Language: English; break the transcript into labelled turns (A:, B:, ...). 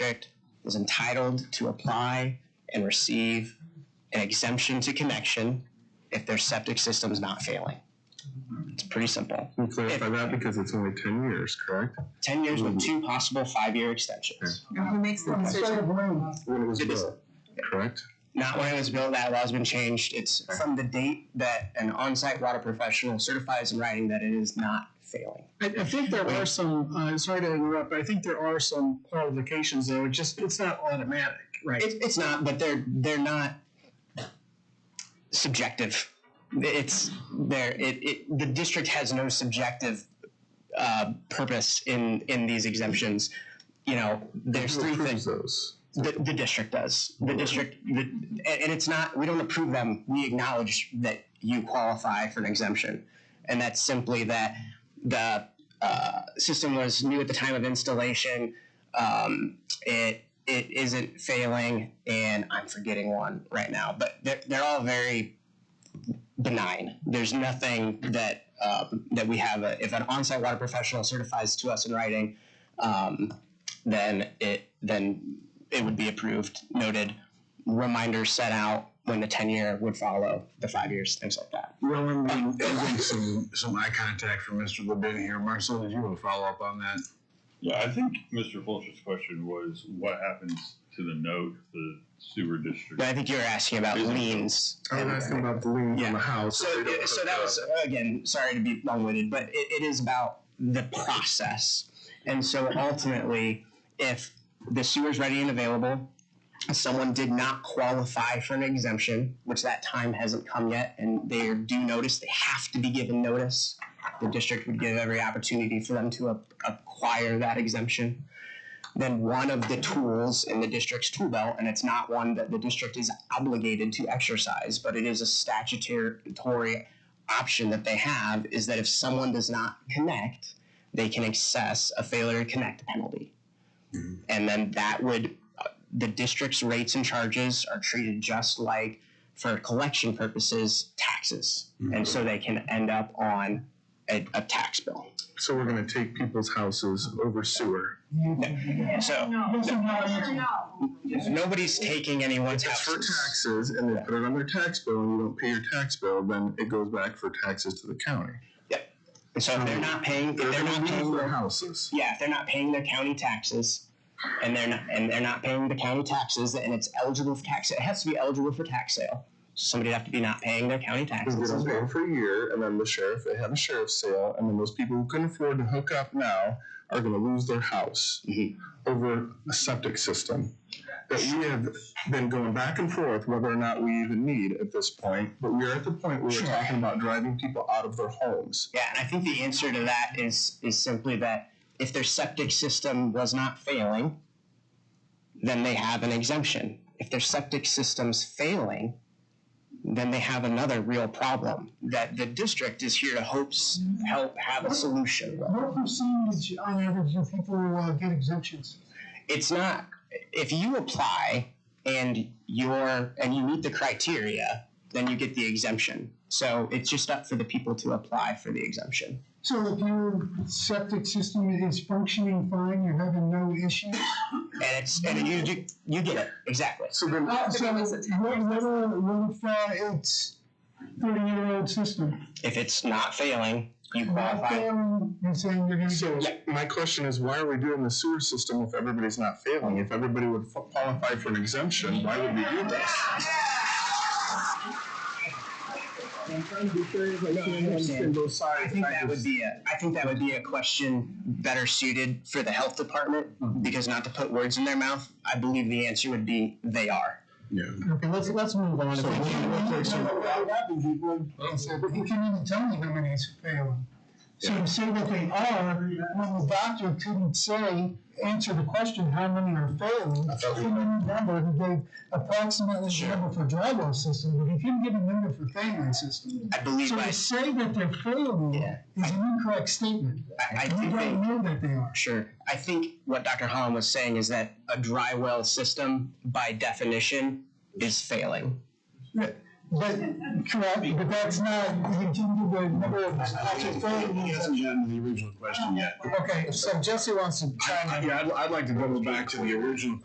A: district was entitled to apply and receive an exemption to connection if their septic system's not failing. It's pretty simple.
B: Can you clarify that because it's only ten years, correct?
A: Ten years with two possible five-year extensions.
C: And who makes the decision?
B: When it was
A: It is-
B: built, correct?
A: Not when it was built, that law's been changed. It's from the date that an on-site water professional certifies in writing that it is not failing.
D: I, I think there are some, uh, sorry to interrupt, but I think there are some qualifications though, it's just, it's not automatic, right?
A: It's, it's not, but they're they're not subjective. It's there. It, it the district has no subjective uh, purpose in in these exemptions. You know, there's
B: Who
A: three
B: approves
A: things.
B: Those.
A: The, the district does. The district, the, and, and it's not. We don't approve them. We acknowledge that you qualify for an exemption, and that's simply that the uh, system was new at the time of installation. Um, it it isn't failing, and I'm forgetting one right now. But they're they're all very benign. There's nothing that um, that we have. A, if an on-site water professional certifies to us in writing, um, then it then it would be approved. Noted. Reminders set out when the ten year would follow the five years, things like that.
B: Well, and we-
E: I think some, some eye contact from Mr. Levin here. Marcel, did you want to follow up on that?
F: Yeah, I think Mr. Fulcher's question was what happens to the note, the sewer district?
A: But I think you were asking about
F: Is it-
A: liens.
B: I was asking about the lien on
A: Yeah.
B: the house.
A: So,
B: They don't
A: so that was again. Sorry to be long-winded, but it, it is about the process. And so ultimately, if the sewer's ready and available, someone did not qualify for an exemption, which that time hasn't come yet, and they are due notice. They have to be given notice. The district would give every opportunity for them to a- acquire that exemption. Then one of the tools in the district's tool belt, and it's not one that the district is obligated to exercise, but it is a statutory option that they have, is that if someone does not connect, they can access a failure to connect penalty. And then that would, uh, the district's rates and charges are treated just like, for collection purposes, taxes. And so they can end up on a, a tax bill.
B: So we're gonna take people's houses over sewer.
A: So-
C: No.
A: Nobody's taking anyone's
B: It's for
A: house.
B: taxes and they put it on their tax bill and you don't pay your tax bill, then it goes back for taxes to the county.
A: And so if they're not paying, if
B: They're
A: they're
B: gonna
A: not
B: lose
A: paying
B: their houses.
A: Yeah, if they're not paying their county taxes, and they're not, and they're not paying the county taxes, and it's eligible for tax, it has to be eligible for tax sale. Somebody'd have to be not paying their county
B: Cause they
A: taxes as
B: don't
A: well.
B: pay for a year and then the sheriff, they have a sheriff's sale and then those people who couldn't afford to hook up now are gonna lose their house
A: Mhm.
D: Mm-hmm.
B: over a septic system that we have been going back and forth whether or not we even need at this point, but we are at the point where we're talking about driving people out of their homes.
A: Yeah, and I think the answer to that is is simply that if their septic system was not failing, then they have an exemption. If their septic system's failing, then they have another real problem that the district is here to hopes help have a solution. with.
D: What percentage on average do people, uh, get exemptions?
A: it's not if you apply and you're and you meet the criteria then you get the exemption so it's just up for the people to apply for the exemption
D: So if your septic system is functioning fine, you're having no issues?
A: and it's and you you, you get it exactly
B: So then,
C: So it was a ten
D: What,
C: years.
D: what, are- what if, uh, it's thirty-year-old system?
A: if it's not failing you
D: Not
A: qualify
D: failing, You're saying you're gonna
B: So
D: get.
B: my question is, why are we doing the sewer system if everybody's not failing? If everybody would f- qualify for an exemption, why would we do this?
A: understand
B: both sides.
A: I think that would be a, I think that would be a question better suited for the health department, because not to put words in their mouth, I believe the answer would be, they are.
B: Yeah.
D: Okay, let's, let's move on.
B: So we can-
D: But you can even tell me how many is failing. So to say that they are, when the doctor couldn't say, answer the question, how many are failing?
B: I thought we-
D: He didn't remember, he gave approximately the number for dry well system, but he couldn't give a number for failing system.
A: I believe
D: So
A: I,
D: to say that they're failing
A: Yeah.
D: is an incorrect statement.
A: I- I
D: We
A: think they.
D: don't know that they are.
A: Sure. I think what Dr. Holland was saying is that a dry well system, by definition, is failing.
D: But, correct, but that's not, he didn't give the number of actual
E: He
D: failures.
E: hasn't gotten to the original question yet.
D: Okay, so Jesse wants to chime in.
E: Yeah, I'd, I'd like to double back to the original